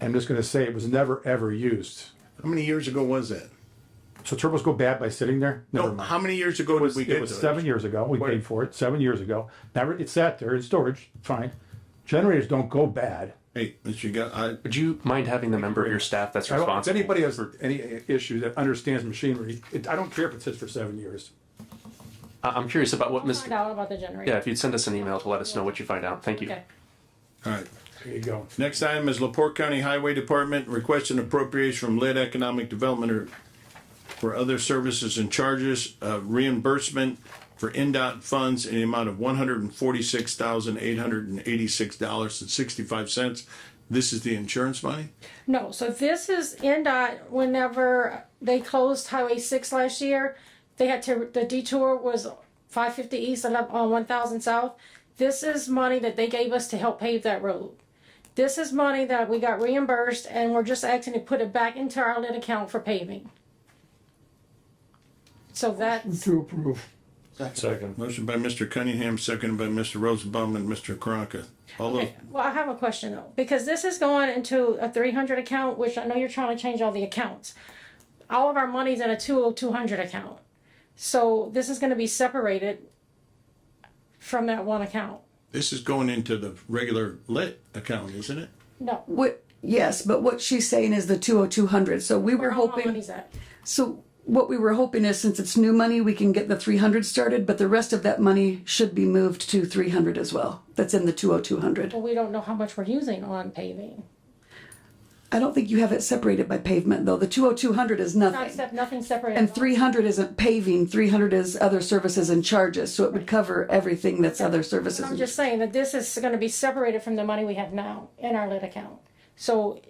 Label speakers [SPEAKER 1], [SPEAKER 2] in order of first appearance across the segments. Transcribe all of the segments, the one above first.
[SPEAKER 1] I'm just gonna say it was never, ever used.
[SPEAKER 2] How many years ago was that?
[SPEAKER 1] So turbos go bad by sitting there? Never
[SPEAKER 2] No,
[SPEAKER 1] mind.
[SPEAKER 2] how many years ago did we
[SPEAKER 1] It
[SPEAKER 2] get
[SPEAKER 1] was
[SPEAKER 2] to
[SPEAKER 1] seven
[SPEAKER 2] it?
[SPEAKER 1] years ago, we
[SPEAKER 2] Wait.
[SPEAKER 1] paid for it, seven years ago. Never, it sat there in storage, fine. Generators don't go bad.
[SPEAKER 2] Hey, Mr. Gu- I,
[SPEAKER 3] Would you mind having the member of your staff that's
[SPEAKER 1] I don't- If
[SPEAKER 3] responsible?
[SPEAKER 1] anybody has any issue that understands machinery, it, I don't care if it sits for seven years.
[SPEAKER 3] I- I'm curious about what Ms.
[SPEAKER 4] Find out about the generator.
[SPEAKER 3] Yeah, if you'd send us an email to let us know what you find out. Thank you.
[SPEAKER 4] Okay.
[SPEAKER 2] all right.
[SPEAKER 1] There you go.
[SPEAKER 2] Next item is Laporte County Highway Department requesting appropriation from Lit Economic Development or for other services and charges, uh, reimbursement for NDOT funds in the amount of one hundred and forty-six thousand, eight hundred and eighty-six dollars and sixty-five cents. This is the insurance money?
[SPEAKER 4] No, so this is NDOT, whenever they closed Highway six last year, they had to, the detour was five fifty east and up on one thousand south. This is money that they gave us to help pave that road. This is money that we got reimbursed and we're just asking to put it back into our lit account for paving. So that's,
[SPEAKER 5] To approve.
[SPEAKER 2] Motion by Mr. Cunningham, seconded by Mr. Rosenbaum and Mr. Karanka. All those,
[SPEAKER 4] well, I have a question though, because this is going into a three hundred account, which I know you're trying to change all the accounts. All of our money's in a two oh two hundred account. So this is gonna be separated from that one account.
[SPEAKER 2] this is going into the regular Lit account, isn't it?
[SPEAKER 4] No,
[SPEAKER 5] What, yes, but what she's saying is the two oh two hundred, so we were
[SPEAKER 4] where all my
[SPEAKER 5] hoping,
[SPEAKER 4] money's at.
[SPEAKER 5] so what we were hoping is since it's new money, we can get the three hundred started, but the rest of that money should be moved to three hundred as well. That's in the two oh two hundred.
[SPEAKER 4] But we don't know how much we're using on paving.
[SPEAKER 5] I don't think you have it separated by pavement though, the two oh two hundred is
[SPEAKER 4] Not
[SPEAKER 5] nothing.
[SPEAKER 4] except, nothing separated.
[SPEAKER 5] And three hundred isn't paving, three hundred is other services and charges, so it would cover everything that's other services.
[SPEAKER 4] I'm
[SPEAKER 5] and-
[SPEAKER 4] just saying that this is gonna be separated from the money we have now in our lit account. So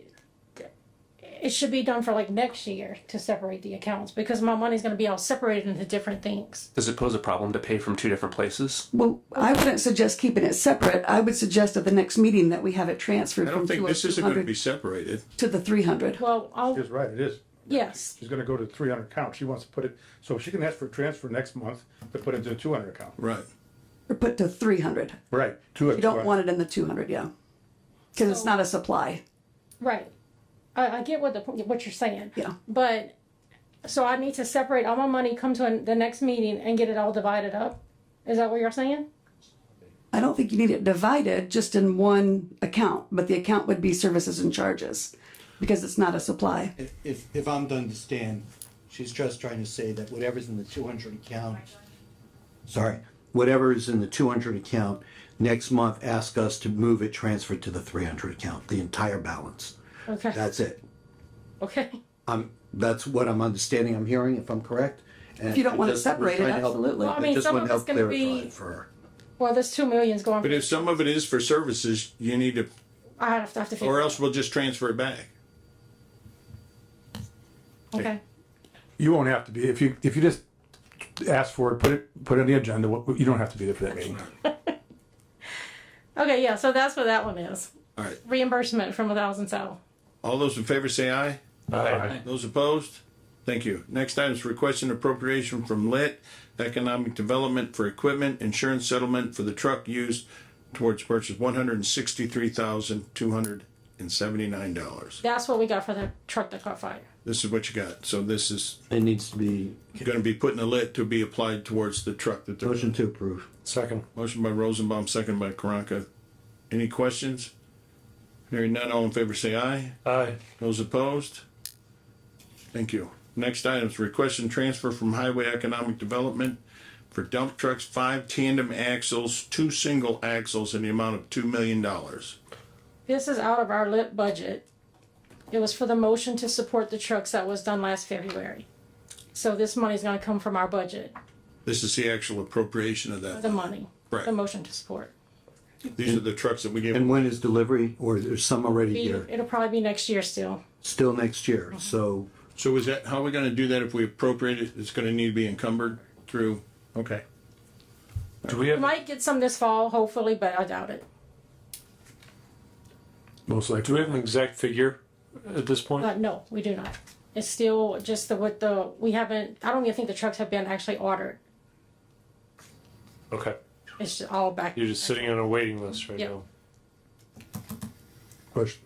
[SPEAKER 4] it should be done for like next year to separate the accounts because my money's gonna be all separated into different things.
[SPEAKER 3] Does it pose a problem to pay from two different places?
[SPEAKER 5] Well, I wouldn't suggest keeping it separate, I would suggest at the next meeting that we have it transferred
[SPEAKER 2] I
[SPEAKER 5] from
[SPEAKER 2] don't
[SPEAKER 5] two
[SPEAKER 2] think
[SPEAKER 5] oh
[SPEAKER 2] this
[SPEAKER 5] two
[SPEAKER 2] isn't gonna be
[SPEAKER 5] hundred
[SPEAKER 2] separated.
[SPEAKER 5] to the three hundred.
[SPEAKER 4] Well, I'll,
[SPEAKER 1] She's right, it is.
[SPEAKER 4] yes,
[SPEAKER 1] She's gonna go to three hundred account. She wants to put it, so she can ask for a transfer next month to put into a two hundred account.
[SPEAKER 2] Right.
[SPEAKER 5] Or put to three hundred.
[SPEAKER 1] Right. Two
[SPEAKER 5] You don't want it in the two hundred, yeah. Cause it's not a supply.
[SPEAKER 4] right. I, I get what the, what you're saying.
[SPEAKER 5] Yeah.
[SPEAKER 4] But, so I need to separate all my money, come to an- the next meeting and get it all divided up? Is that what you're saying?
[SPEAKER 5] I don't think you need it divided just in one account, but the account would be services and charges. Because it's not a supply.
[SPEAKER 6] If- If, if I'm to understand, she's just trying to say that whatever's in the two hundred account, sorry, whatever is in the two hundred account, next month, ask us to move it transferred to the three hundred account, the entire balance.
[SPEAKER 4] Okay,
[SPEAKER 6] That's it.
[SPEAKER 4] okay.
[SPEAKER 6] I'm, that's what I'm understanding, I'm hearing, if I'm correct.
[SPEAKER 5] If you don't want it separated, absolutely.
[SPEAKER 4] Well, I mean, some of it's gonna be-
[SPEAKER 6] For her.
[SPEAKER 4] Well, there's two millions going,
[SPEAKER 2] But if some of it is for services, you need to,
[SPEAKER 4] I have to, I have to
[SPEAKER 2] or
[SPEAKER 4] figure,
[SPEAKER 2] else we'll just transfer it back.
[SPEAKER 4] okay.
[SPEAKER 1] You won't have to be, if you, if you just ask for it, put it, put it on the agenda, what- you don't have to be there for that meeting.
[SPEAKER 4] Okay, yeah, so that's what that one is.
[SPEAKER 2] All right.
[SPEAKER 4] Reimbursement from a thousand south.
[SPEAKER 2] All those in favor say aye.
[SPEAKER 1] Aye.
[SPEAKER 2] Those opposed? Thank you. Next item is requesting appropriation from Lit Economic Development for equipment insurance settlement for the truck used towards purchase one hundred and sixty-three thousand, two hundred and seventy-nine dollars.
[SPEAKER 4] That's what we got for the truck that caught fire.
[SPEAKER 2] This is what you got. So this is
[SPEAKER 6] It needs to be,
[SPEAKER 2] gonna be put in a lit to be applied towards the truck that they're.
[SPEAKER 6] motion to approve.
[SPEAKER 7] Second.
[SPEAKER 2] Motion by Rosenbaum, second by Karanka. Any questions? Hearing none, all in favor say aye.
[SPEAKER 7] Aye.
[SPEAKER 2] Those opposed? Thank you. Next item is request and transfer from Highway Economic Development for dump trucks, five tandem axles, two single axles in the amount of two million dollars.
[SPEAKER 4] This is out of our lit budget. It was for the motion to support the trucks that was done last February. So this money's gonna come from our budget,
[SPEAKER 2] This is the actual appropriation of
[SPEAKER 4] the
[SPEAKER 2] that.
[SPEAKER 4] money,
[SPEAKER 2] Right.
[SPEAKER 4] the motion to support.
[SPEAKER 2] These are the trucks that we gave.
[SPEAKER 6] And when is delivery, or there's some already here,
[SPEAKER 4] It'll probably be next year still.
[SPEAKER 6] still next
[SPEAKER 5] Mm-hmm.
[SPEAKER 6] year, so
[SPEAKER 2] So is that, how are we gonna do that if we appropriate it? It's gonna need to be encumbered through, okay.
[SPEAKER 7] Do we
[SPEAKER 4] We
[SPEAKER 7] have,
[SPEAKER 4] might get some this fall, hopefully, but I doubt it.
[SPEAKER 1] Most
[SPEAKER 7] do
[SPEAKER 1] likely.
[SPEAKER 7] we have an exact figure at this point?
[SPEAKER 4] Uh, no, we do not. It's still just the, with the, we haven't, I don't even think the trucks have been actually ordered.
[SPEAKER 7] Okay.
[SPEAKER 4] It's just all back.
[SPEAKER 7] You're just sitting on a waiting list right
[SPEAKER 4] Yep.
[SPEAKER 7] now.
[SPEAKER 1] question.